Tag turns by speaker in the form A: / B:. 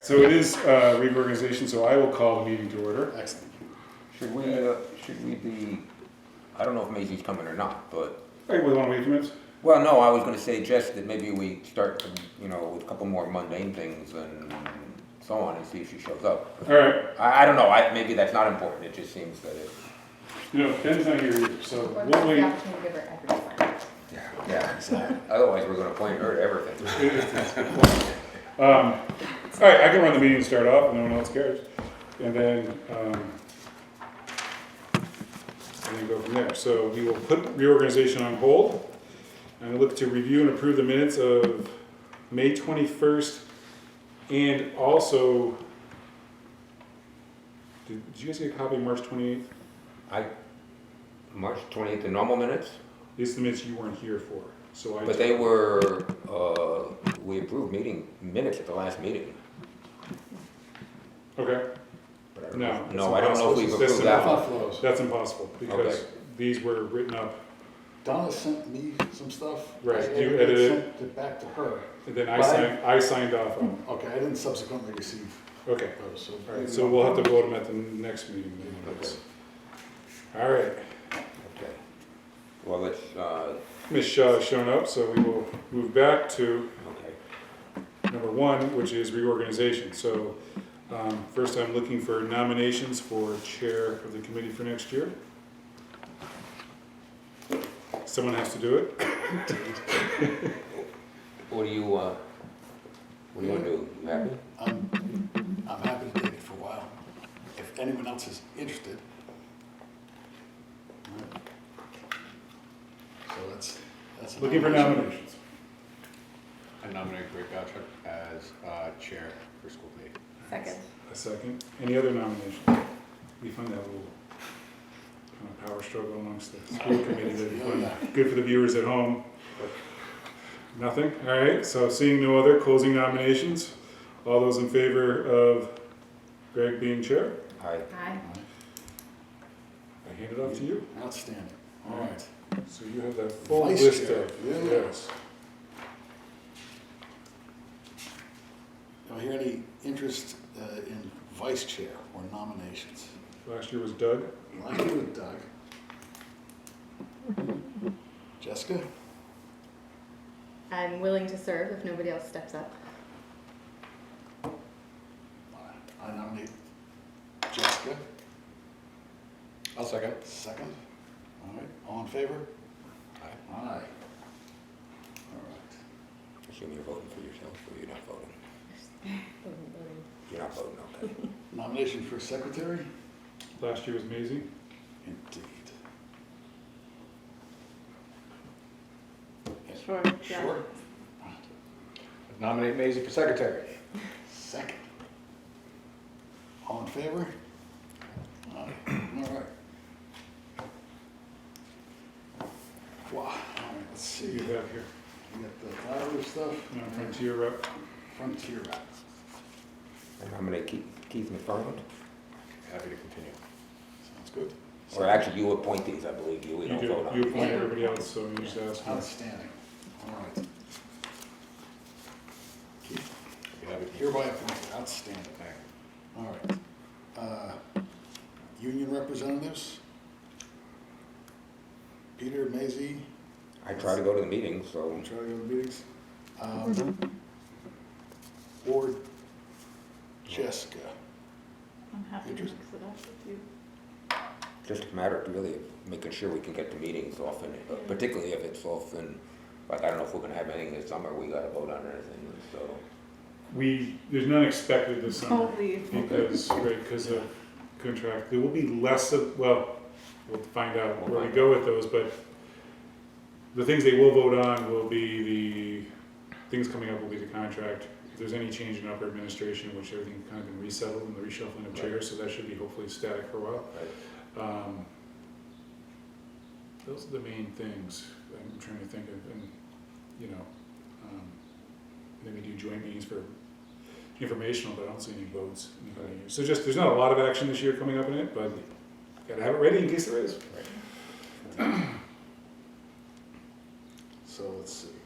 A: So it is uh, reorganization, so I will call the meeting to order.
B: Excellent.
C: Should we, uh, should we be, I don't know if Maisie's coming or not, but,
A: Hey, we want to wait a few minutes?
C: well, no, I was gonna say, Jess, that maybe we start, you know, with a couple more mundane things and so on, and see if she shows up.
A: All right,
C: I, I don't know, I, maybe that's not important, it just seems that it,
A: you know, Ben's not here either, so
D: What
A: we'll
D: the
A: wait.
D: opportunity to give her everyone?
C: yeah, otherwise we're gonna point her to everything.
A: All right, I can run the meeting and start off, and no one else cares. And then, um, and then go from there. So we will put reorganization on hold. And I look to review and approve the minutes of May 21st and also, did did you guys get a copy of March 28th?
C: I, March twentieth, the normal minutes,
A: These are the minutes you weren't here for, so I.
C: but they were, uh, we approved meeting, minutes at the last meeting.
A: Okay.
C: but I don't-
A: No, that's
C: No, I don't know if we've
A: impossible. That's
C: approved that one.
B: Thought flows.
A: That's impossible because
C: Okay.
A: these were written up,
B: Donna sent me some stuff.
A: Right,
B: I
A: you edited it.
B: Sent it back to her.
A: and then I
B: Right.
A: signed, I signed off on them.
B: Okay, I didn't subsequently receive
A: Okay,
B: those, so.
A: all right, so we'll have to vote them at the next meeting. then, I guess. All right,
C: Okay. Well, it's, uh,
A: Ms. Shaw has shown up, so we will move back to
C: okay.
A: number one, which is reorganization. So um, first, I'm looking for nominations for chair of the committee for next year. Someone has to do it.
C: What do you, uh, what do you wanna do? You happy?
B: I'm, I'm happy to take it for a while, if anyone else is interested. So that's, that's. a
A: Looking for
B: nomination.
A: nominations.
E: I nominate Greg Gottschalk as uh, chair for school committee.
D: Second.
A: A second. Any other nominations? We find that little kind of power struggle amongst the school committee. that'd be fun. Good for the viewers at home. Nothing? All right, so seeing no other closing nominations, all those in favor of Greg being chair?
C: Aye.
D: Aye.
A: I hand it off to you.
B: Outstanding, all right.
A: So you have that full
B: Vice
A: list
B: chair.
A: of,
B: Yeah.
A: yes.
B: Do I hear any interest uh, in vice chair or nominations?
A: Last year was Doug.
B: Well, I agree with Doug. Jessica?
D: I'm willing to serve if nobody else steps up.
B: I nominate Jessica,
E: I'll second.
B: second. All right, all in favor? Aye. All right.
C: Assume you're voting for yourself, or you're not voting? You're not voting, okay.
B: Nomination for secretary?
A: Last year was Maisie.
B: Indeed.
D: Sure,
B: Sure.
E: Nominate Maisie for secretary.
B: Second. All in favor? Aye. All right. Wow, all right, let's see.
A: You
B: We
A: have here,
B: got the Tyler stuff.
A: uh, Frontier rep.
B: Frontier Act.
C: And I'm gonna keep Keith McFarland,
E: Happy to continue.
B: Sounds good.
C: or actually you appoint these, I believe, you, we
A: You
C: don't
A: do,
C: vote on
A: you
C: these.
A: appoint everybody else, so you just ask. me.
B: Outstanding. All right. Keith,
E: Be happy to-
B: Hereby appointed, outstanding. All right. Uh, Union representatives? Peter, Maisie,
C: I try to go to the meetings,
B: I'm
C: so,
B: trying to go to meetings. Um, Or Jessica?
F: I'm happy to mix
B: Interesting.
F: it up with you.
C: just a matter of really making sure we can get to meetings often, uh, particularly if it's often, like, I don't know if we're gonna have anything this summer, we gotta vote on anything, so.
A: We, there's none expected this
D: uh,
A: summer.
D: Oh,
F: Don't leave.
A: Because, right, because of contract, there will be less of, well, we'll find out
C: We'll
A: where we
C: find
A: go with those, but the things they will vote on will be the, things coming up will be the contract. If there's any change in upper administration, which everything kind of been resettled and the reshuffling of chairs, so that should be hopefully static for a while. Um, Those are the main things I'm trying to think of, and, you know, um, maybe do joint meetings for informational, but I don't see any votes. in the coming year. So just, there's not a lot of action this year coming up in it, but gotta have it ready in case there is.
B: So let's see.